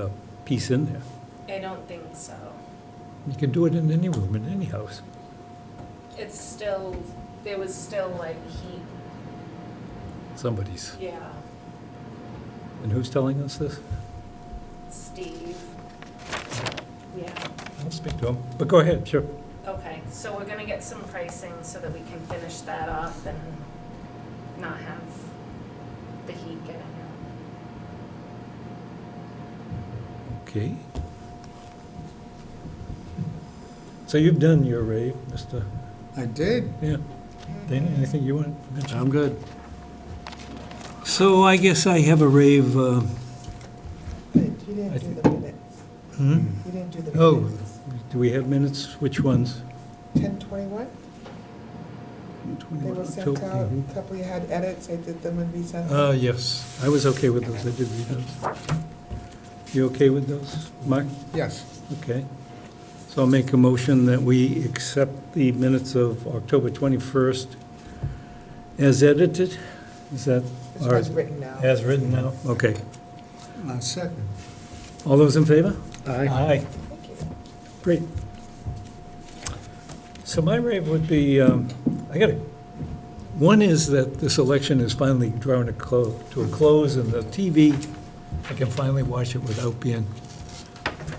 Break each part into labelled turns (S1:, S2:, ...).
S1: a piece in there.
S2: I don't think so.
S1: You can do it in any room, in any house.
S2: It's still, there was still like heat,
S1: Somebody's.
S2: yeah,
S1: And who's telling us this?
S2: Steve. Yeah,
S1: I'll speak to him. But go ahead, sure.
S2: okay, so we're gonna get some pricing so that we can finish that off and not have the heat getting out.
S1: Okay. So you've done your rave, Mr.
S3: I did.
S1: Yeah. Dana, anything you want to mention?
S3: I'm good.
S1: So I guess I have a rave, uh,
S4: You didn't do the minutes.
S1: hmm?
S4: You didn't do the
S1: Oh.
S4: minutes.
S1: do we have minutes? Which ones?
S4: Ten twenty-one, they
S1: Two,
S4: were sent out,
S1: mhm.
S4: a couple you had edits, I did them and resent
S1: Uh,
S4: them.
S1: yes, I was okay with those, I did read those. You okay with those, Mark?
S3: Yes.
S1: Okay. So I'll make a motion that we accept the minutes of October 21st as edited. Is that,
S4: This
S1: or-
S4: was written now.
S1: as written now? Okay.
S3: Uh, second.
S1: All those in favor?
S3: Aye.
S4: Thank you.
S1: Great. So my rave would be, um, I got it. One is that this election is finally drawing a clo, to a close, and the TV, I can finally watch it without being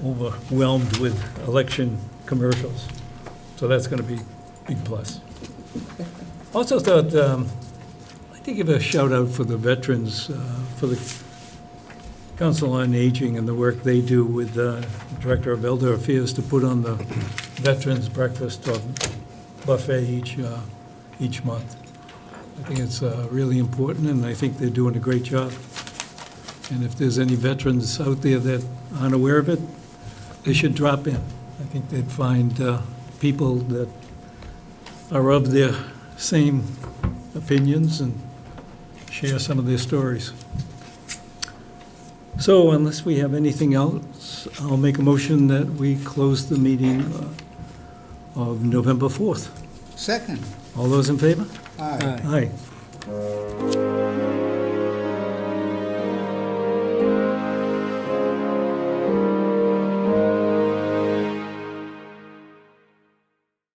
S1: overwhelmed with election commercials. So that's gonna be a big plus. Also thought, um, I'd like to give a shout out for the veterans, uh, for the Council on Aging and the work they do with uh, Director of Elder Affairs to put on the Veterans Breakfast or Buffet each, uh, each month. I think it's uh, really important, and I think they're doing a great job. And if there's any veterans out there that aren't aware of it, they should drop in. I think they'd find uh, people that are of their same opinions and share some of their stories. So unless we have anything else, I'll make a motion that we close the meeting uh, of November 4th.
S3: Second.
S1: All those in favor?
S3: Aye.
S1: Aye.